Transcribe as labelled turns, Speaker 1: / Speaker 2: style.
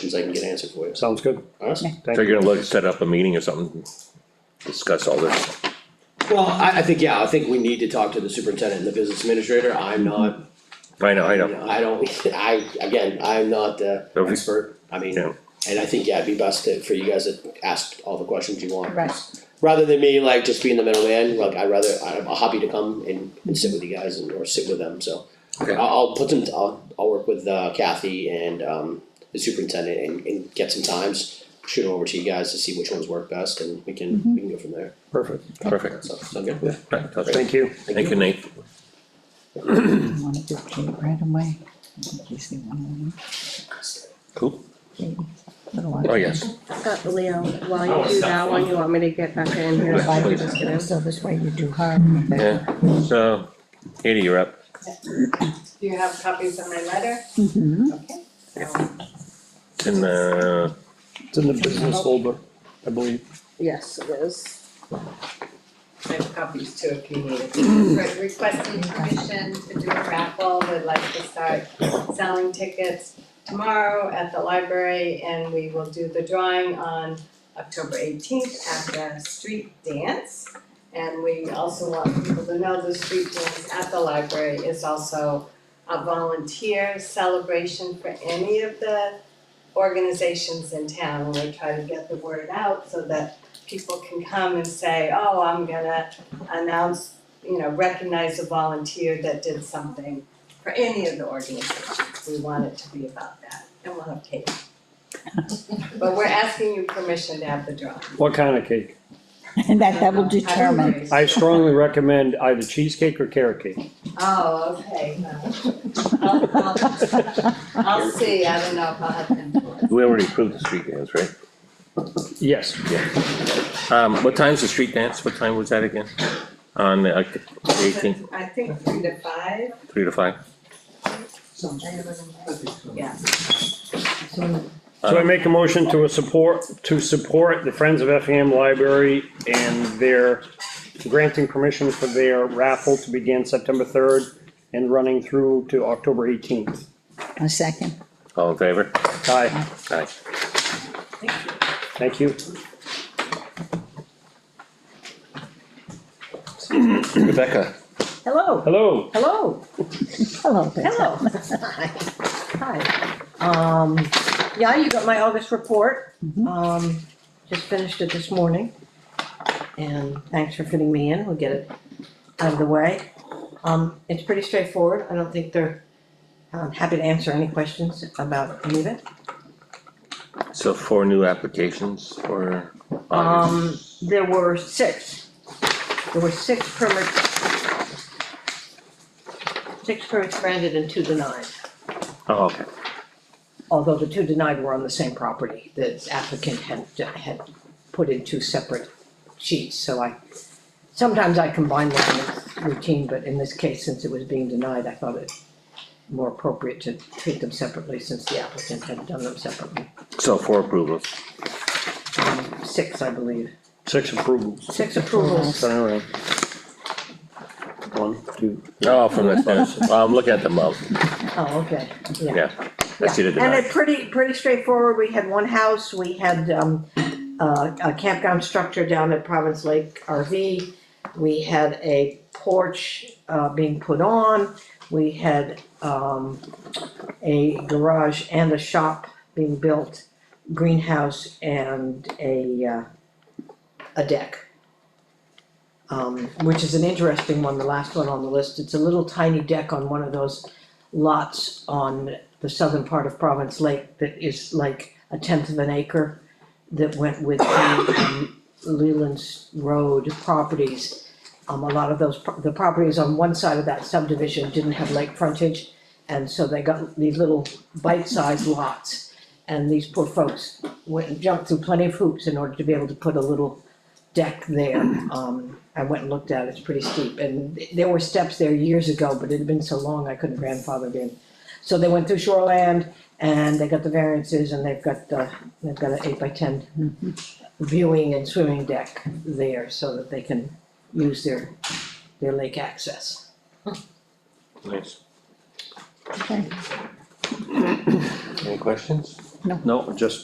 Speaker 1: Since I can get an answer for you.
Speaker 2: Sounds good.
Speaker 1: Awesome.
Speaker 2: Thank
Speaker 3: So
Speaker 2: you.
Speaker 3: you're gonna look, set up a meeting or something, discuss all this,
Speaker 1: Well, I, I think, yeah, I think we need to talk to the superintendent and the business administrator. I'm not,
Speaker 3: I know, I
Speaker 1: you
Speaker 3: know,
Speaker 1: know, I don't, I, again, I'm not the
Speaker 3: Okay.
Speaker 1: expert. I mean,
Speaker 3: Yeah.
Speaker 1: and I think, yeah, it'd be best to, for you guys to ask all the questions you want.
Speaker 4: Right.
Speaker 1: Rather than me like just being the middleman, like I'd rather, I'm happy to come and, and sit with you guys and, or sit with them, so.
Speaker 3: Okay.
Speaker 1: I'll, I'll put them, I'll, I'll work with uh, Kathy and, um, the superintendent and, and get some times, shoot them over to you guys to see which ones work best and we can, we can go from there,
Speaker 2: Perfect.
Speaker 3: perfect.
Speaker 1: so, so good.
Speaker 3: Right, sounds good.
Speaker 2: Thank you.
Speaker 3: Thank you, Nate,
Speaker 4: You wanna give Kate right away? In case they wanna leave.
Speaker 3: cool,
Speaker 4: Katie, little one.
Speaker 3: oh, yes,
Speaker 5: Uh, Leo, while you do that one, you want me to get back in here?
Speaker 4: Five
Speaker 3: please.
Speaker 4: minutes ago, So this way you do her. and then-
Speaker 3: yeah, so, Katie, you're up,
Speaker 6: Do you have copies of my letter?
Speaker 4: Mhm.
Speaker 6: Okay. So,
Speaker 3: and, uh,
Speaker 2: It's in the business folder, I believe.
Speaker 5: Yes, it is.
Speaker 6: I have copies too if you need it.
Speaker 7: Re- requesting permission to do a raffle, would like to start selling tickets tomorrow at the library, and we will do the drawing on October eighteenth at the street dance. And we also want people to know the street dance at the library is also a volunteer celebration for any of the organizations in town, and we try to get the word out so that people can come and say, oh, I'm gonna announce you know, recognize a volunteer that did something for any of the organizations. We want it to be about that, and we'll have cake. But we're asking you permission to have the drawing.
Speaker 2: What kind of cake?
Speaker 4: And that, that will determine.
Speaker 2: I strongly recommend either cheesecake or carrot cake.
Speaker 7: Oh, okay, no. I'll, I'll, I'll see, I don't know if I'll have influence.
Speaker 3: we already approved the street dance, right?
Speaker 2: Yes,
Speaker 3: Um, what time's the street dance, what time was that again? On the eighteenth,
Speaker 7: I think three to five,
Speaker 3: three to five?
Speaker 7: yeah.
Speaker 2: so I make a motion to a support, to support the Friends of Effingham Library and their granting permission for their raffle to begin September third and running through to October eighteenth.
Speaker 4: A second.
Speaker 3: All in favor?
Speaker 2: Aye,
Speaker 3: Aye.
Speaker 2: thank you.
Speaker 3: Rebecca,
Speaker 5: Hello,
Speaker 2: Hello,
Speaker 5: hello,
Speaker 4: Hello there.
Speaker 5: hello. Hi. Um, yeah, you got my August report. Um, just finished it this morning. And thanks for fitting me in. We'll get it out of the way. Um, it's pretty straightforward. I don't think they're, I'm happy to answer any questions about any of it.
Speaker 3: so four new applications for
Speaker 5: Um,
Speaker 3: August?
Speaker 5: there were six. There were six permits. Six permits granted and two denied,
Speaker 3: Oh, okay,
Speaker 5: although the two denied were on the same property. The applicant had, had put in two separate sheets, so I, sometimes I combine them, it's routine, but in this case, since it was being denied, I thought it more appropriate to treat them separately since the applicant had done them separately.
Speaker 3: so four approvals,
Speaker 5: Um, Six, I believe.
Speaker 2: six approvals.
Speaker 5: Six approvals.
Speaker 2: Turn around. One, two,
Speaker 3: oh, from the, well, I'm looking at the month,
Speaker 5: Oh, okay, yeah.
Speaker 3: yeah, I see the
Speaker 5: Yeah, And
Speaker 3: denied,
Speaker 5: it pretty, pretty straightforward, we had one house, we had, um, uh, a campground structure down at Province Lake RV. We had a porch, uh, being put on, we had, um, a garage and a shop being built, greenhouse and a, uh, a deck. Um, which is an interesting one, the last one on the list, it's a little tiny deck on one of those lots on the southern part of Province Lake that is like a tenth of an acre that went with the um, Leland's Road properties. Um, a lot of those, pro- the properties on one side of that subdivision didn't have lake frontage, and so they got these little bite-sized lots. And these poor folks went and jumped through plenty of hoops in order to be able to put a little deck there. Um, I went and looked at it, it's pretty steep, and th- there were steps there years ago, but it had been so long, I couldn't grandfather it in. So they went through shoreland and they got the variances and they've got the, they've got an eight by ten viewing and swimming deck there so that they can use their, their lake access.
Speaker 3: nice,
Speaker 4: Okay.
Speaker 3: any questions?
Speaker 4: No.
Speaker 3: No, just